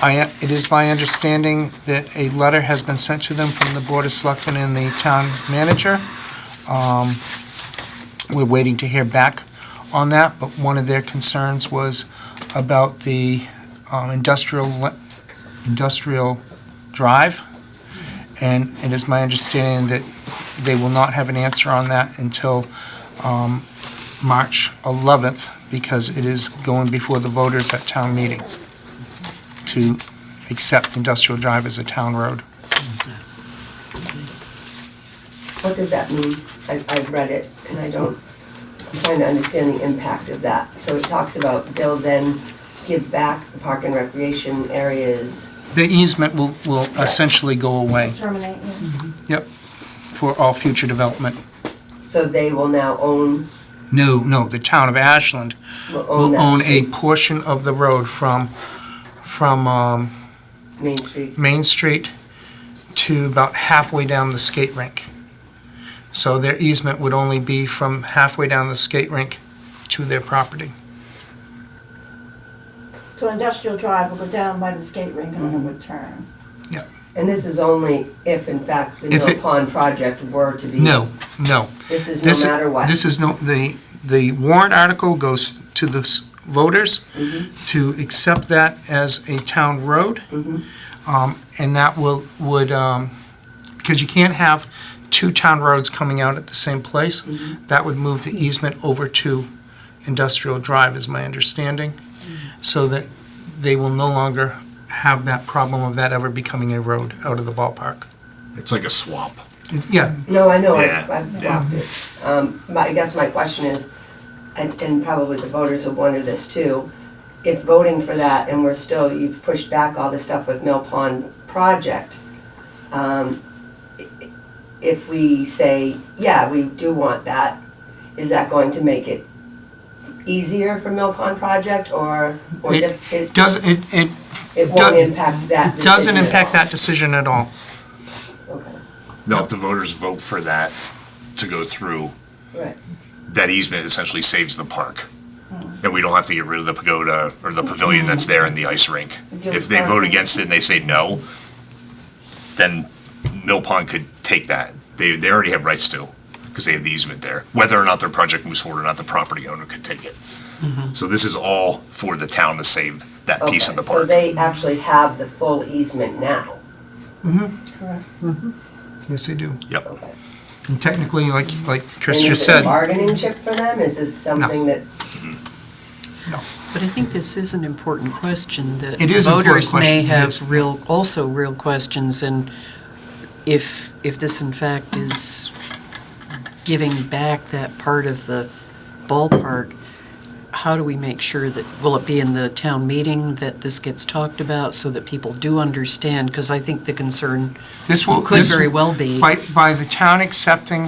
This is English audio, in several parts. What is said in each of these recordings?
I, it is my understanding that a letter has been sent to them from the Board of Selectmen and the town manager. Um, We're waiting to hear back on that, but one of their concerns was about the um, industrial, le- industrial drive. And it is my understanding that they will not have an answer on that until um, March 11th, because it is going before the voters at town meeting to accept industrial drive as a town road. What does that mean? I've, I've read it and I don't, I'm trying to understand the impact of that. So it talks about they'll then give back the park and recreation areas. The easement will, will essentially go away terminate, yeah. for all future development. So they will now own, No, no, the town of Ashland will own will own that a street, portion of the road from, from um, Main Street. Main Street to about halfway down the skate rink. So their easement would only be from halfway down the skate rink to their property. So industrial drive will go down by the skate rink and then it would turn. And this is only if in fact the If Mill it- Pond project were to be. No, no. This is This- no matter what. This is no, the, the warrant article goes to the s- voters Mm-hmm. to accept that as a town road. Mhm. Um, And that will, would, um, because you can't have two town roads coming out at the same place. Mm-hmm. That would move the easement over to Industrial Drive, is my understanding. Mm-hmm. So that they will no longer have that problem of that ever becoming a road out of the ballpark. It's like a swamp. Yeah, No, I know, Yeah, I- I've walked it. Um, my- I guess my question is, and, and probably the voters will wonder this too, if voting for that and we're still, you've pushed back all the stuff with Mill Pond project, um, i- i- if we say, yeah, we do want that, is that going to make it easier for Mill Pond project or, or It if it, doesn't, it, it it does- won't impact that decision doesn't at impact all? that decision at all. Okay, Now, if the voters vote for that to go through, right. that easement essentially saves the park. Hmm. And we don't have to get rid of the pagoda or the pavilion that's there and the ice rink. If they vote against it and they say no, then Mill Pond could take that. They, they already have rights to, because they have the easement there. Whether or not their project moves forward or not, the property owner could take it. Mm-hmm. So this is all for the town to save that piece of the Okay, So park. they actually have the full easement now? Correct. Yes, they do. Yep. And technically, like, like Chris just And Is it a said, bargaining chip for them? Is this something that, But I think this is an important question that It is an important voters may question, yes. have real, also real questions, and if, if this in fact is giving back that part of the ballpark, how do we make sure that, will it be in the town meeting that this gets talked about so that people do understand? Because I think the concern this will. could this- very well be, By, by the town accepting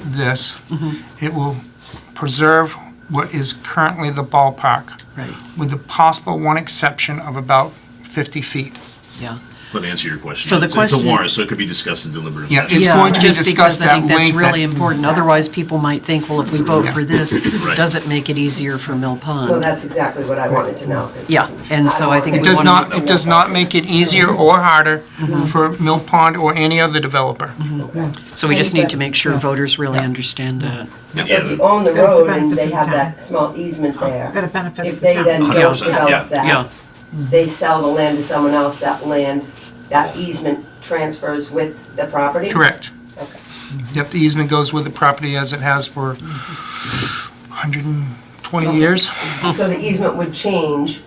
this, Mm-hmm. it will preserve what is currently the ballpark, right, with the possible one exception of about 50 feet. yeah. Let me answer your question. So the It's- It's question- a warrant, so it could be discussed in deliberative Yeah, session. It's going to be just because discussed I at think that's length really at- important. Otherwise, people might think, well, if we vote for this, Right. does it make it easier for Mill well, Pond? that's exactly what I wanted to know. 'cause Yeah, and so I think It We does wanna- Mm-hmm. not, it does not make it easier or harder for Mill Pond or any other developer. So we just need to make sure voters really understand that. So if you own the road and they have that small easement there. That benefits If they then don't 100%, yeah, develop Yeah, that, they sell the land to someone else, that land, that easement transfers with the property? Correct. Okay. Yep, the easement goes with the property as it has for Mm-hmm. 120 years. So the easement would change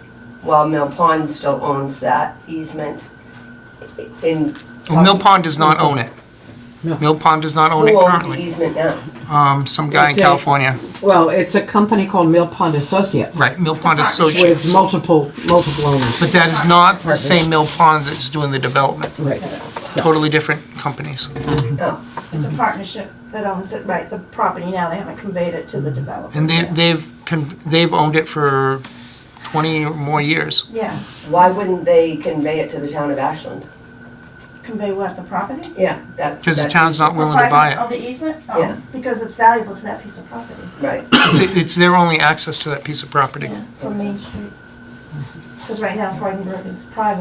while Mill Pond still owns that easement in. Well, Mill Pond does not own it. Mill Pond does not own it Who owns the currently. easement now? Um, some guy in It's a- California. Well, it's a company called Mill Pond Associates. Right, Mill Pond With Associates. multiple, multiple owners. But that is not the same Mill Pond that's doing the development. Right. Totally different companies. Oh. It's Mm-hmm. a partnership that owns it, right, the property now, they haven't conveyed it to the developer. Mm-hmm. And they, yet. they've, con- they've owned it for 20 or more years. Yeah, Why wouldn't they convey it to the town of Ashland? convey what, the property? Yeah, that. Because the that- town's not willing to buy Oh, it. the easement? Yeah. Oh, because it's valuable to that piece of property Right, It's, it's their only access to that piece of property. from Main Street. Because right now Freudenberg is private.